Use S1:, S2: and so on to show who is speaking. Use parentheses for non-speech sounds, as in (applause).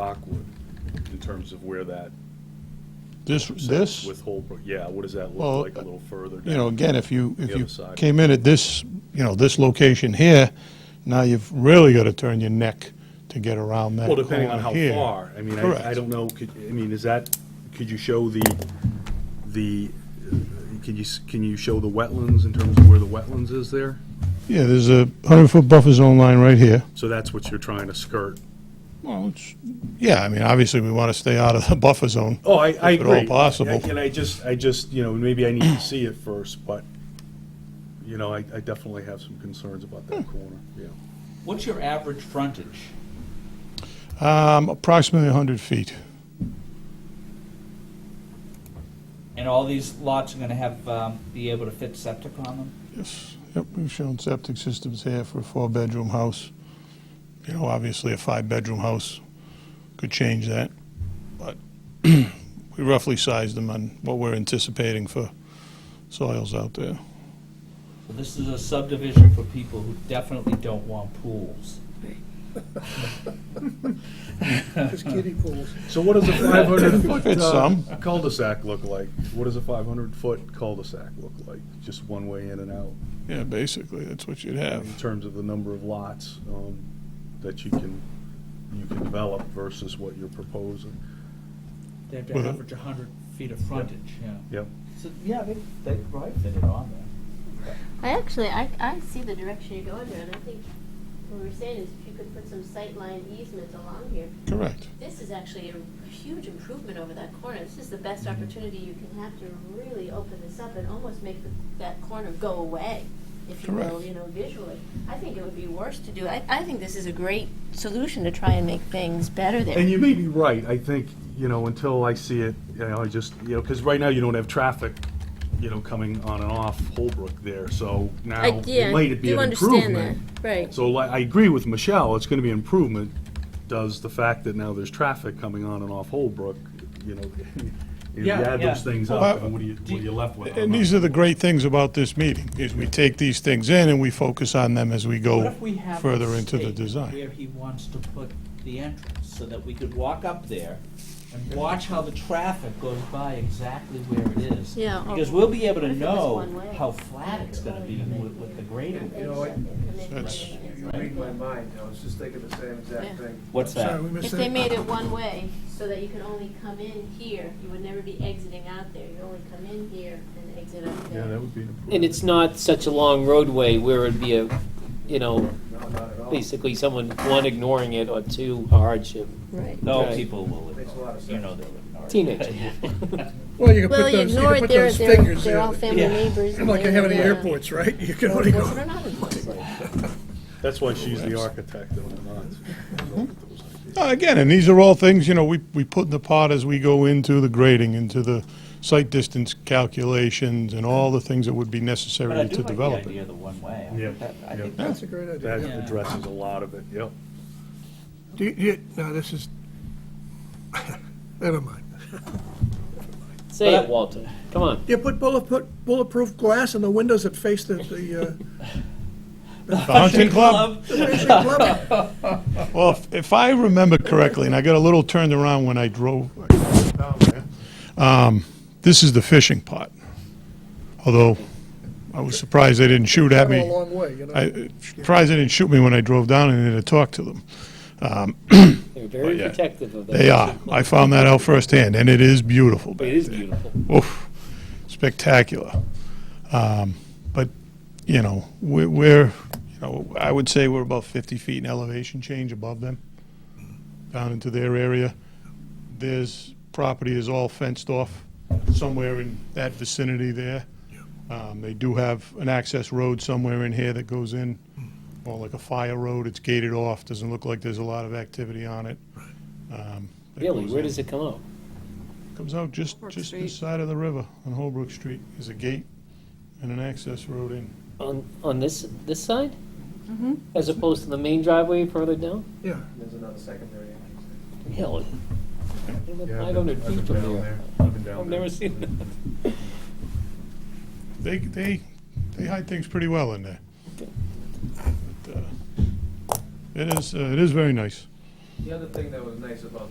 S1: Rockwood in terms of where that
S2: This, this,
S1: with Holbrook, yeah, what does that
S2: Well,
S1: look like a little further down?
S2: you know, again, if you, if
S1: The
S2: you
S1: other side.
S2: came in at this, you know, this location here, now you've really got to turn your neck to get around that
S1: Well, depending on
S2: corner
S1: how
S2: here.
S1: far, I mean,
S2: Correct.
S1: I, I don't know, could, I mean, is that, could you show the, the, uh, can you, s- can you show the wetlands in terms of where the wetlands is there?
S2: Yeah, there's a hundred-foot buffer zone line right here.
S1: So that's what you're trying to skirt?
S2: Well, it's, yeah, I mean, obviously, we want to stay out of the (laughs) buffer zone.
S1: Oh, I, I
S2: If at all
S1: agree.
S2: possible.
S1: And- And I just, I just, you know, maybe I need to see it first, but, you know, I, I definitely have some concerns about that
S2: Hmm.
S1: corner, yeah.
S3: What's your average frontage?
S2: Um, approximately hundred feet.
S3: And all these lots are gonna have, um, be able to fit septic on them?
S2: Yes, yep, we've shown septic systems here for a four-bedroom house. You know, obviously, a five-bedroom house could change that, but (clears throat) we roughly sized them on what we're anticipating for soils out there.
S3: So this is a subdivision for people who definitely don't want pools.
S4: Just kiddie pools.
S1: So what does a five hundred foot
S2: (laughs) It's some.
S1: uh, cul-de-sac look like? What does a five hundred foot cul-de-sac look like? Just one way in and out,
S2: Yeah, basically, that's what you'd
S1: in
S2: have.
S1: terms of the number of lots, um, that you can, you can develop versus what you're proposing?
S3: They have
S2: to Well- average
S3: hundred feet of frontage, yeah.
S1: Yep.
S3: So, yeah, they, they could probably fit it on there.
S5: I actually, I, I see the direction you're going there, and I think what we were saying is if you could put some sightline easements along here,
S2: Correct.
S5: this is actually a huge improvement over that corner. This is the best
S1: Mm-hmm.
S5: opportunity you can have to really open this up and almost make the, that corner go away, if you will,
S2: Correct.
S5: you know, visually. I think it would be worse to do, I, I think this is a great solution to try and make things better there.
S1: And you may be right, I think, you know, until I see it, you know, I just, you know, because right now you don't have traffic, you know, coming on and off Holbrook there, so now
S5: I, yeah,
S1: it
S5: I
S1: might be
S5: do
S1: an
S5: understand that,
S1: improvement.
S5: right.
S1: So like, I agree with Michelle, it's gonna be an improvement, does the fact that now there's traffic coming on and off Holbrook, you know, (laughs) if you
S3: Yeah,
S1: add
S3: yeah.
S1: those things
S2: Well,
S1: up, and what are you, what are you left with? I don't
S2: And
S1: know.
S2: these are the great things about this meeting, is we take these things in and we focus on them as we
S3: What
S2: go
S3: if we have
S2: further
S3: a
S2: into the
S3: stake
S2: design.
S3: Where he wants to put the entrance, so that we could walk up there and watch how the traffic goes by exactly where it is.
S5: Yeah, or-
S3: Because we'll be able to
S5: If it was
S3: know
S5: one way.
S3: how flat it's gonna be with, with the grading.
S4: You know, I-
S2: That's-
S4: you read my mind, I was just thinking the same
S5: Yeah.
S4: exact thing.
S3: What's that?
S4: Sorry, we missed
S5: If they
S4: it.
S5: made it one way, so that you could only come in here, you would never be exiting out there, you only come in here and exit out
S1: Yeah, that
S5: there.
S1: would be an improvement.
S6: And it's not such a long roadway where it'd be a, you know,
S4: No, not at all.
S6: basically someone, one, ignoring it, or two, a hardship.
S5: Right.
S3: No,
S6: Right.
S3: people will
S4: Makes a
S3: ignore
S4: lot of
S3: it. You
S4: sense.
S3: know they will ignore it.
S6: Teenagers.
S3: (laughs) Yeah.
S7: Well, you
S5: Well, you
S7: can put those, you
S5: ignore
S7: can
S5: it,
S7: put
S5: they're,
S7: those
S5: they're,
S7: fingers
S5: they're all
S7: there.
S5: family
S3: Yeah.
S5: neighbors. and
S7: Like you
S5: they
S7: have at the
S5: wanna-
S7: airports, right? You can only
S5: Was it
S7: go,
S5: or not, it was it?
S1: That's why she's the architect, though, not. Those ideas.
S2: Uh, Again, and these are all things, you know, we, we put in the pot as we go into the grading, into the site distance calculations and all the things that would be
S3: But I
S2: necessary
S3: do
S2: to
S3: like the
S2: develop it.
S3: idea of the one way.
S1: Yeah,
S3: I
S1: yeah.
S3: think
S4: That's a great idea.
S1: That
S3: Yeah.
S1: addresses a lot of it, yep.
S7: do you- do you, no, this is, (laughs) never mind.
S6: Say it, Walter. Come on.
S7: You put bullet, put bulletproof glass in the windows that face the, the, uh,
S2: The hunting club?
S7: the Rotary club.
S2: Well, if- if I remember correctly, and I got a little turned around when I drove down there, um, this is the fishing pot. Although, I was surprised they didn't shoot at
S7: Come
S2: me.
S7: a long way, you know?
S2: I, surprised they didn't shoot me when I drove down and had to talk to them.
S6: They're very
S2: yeah.
S6: protective of that.
S2: They are. I found that out firsthand, and it is beautiful.
S6: It is beautiful.
S2: Oof, spectacular. Um, but, you know, we're, we're, you know, I would say we're about 50 feet in elevation change above them, down into their area. There's, property is all fenced off somewhere in that vicinity there. Um, they do have an access road somewhere in here that goes in, or like a fire road. It's gated off, doesn't look like there's a lot of activity on it. Um, that
S6: Really,
S2: goes
S6: where
S2: in.
S6: does it come out?
S2: Comes out just, just this side of the river on Holbrook Street. There's a gate and an access road in.
S6: On, on this, this side? As opposed to the main driveway further down?
S7: Yeah,
S4: There's another secondary. entrance.
S6: Really?
S1: Yeah,
S6: Five
S1: I've been-
S6: hundred feet
S1: I've been
S6: from
S1: down
S6: there.
S1: I've been down
S6: I've
S1: there.
S6: never seen that.
S2: They, they, they hide things pretty well in there. But, uh, It is, uh, it is very nice.
S4: The other thing that was nice about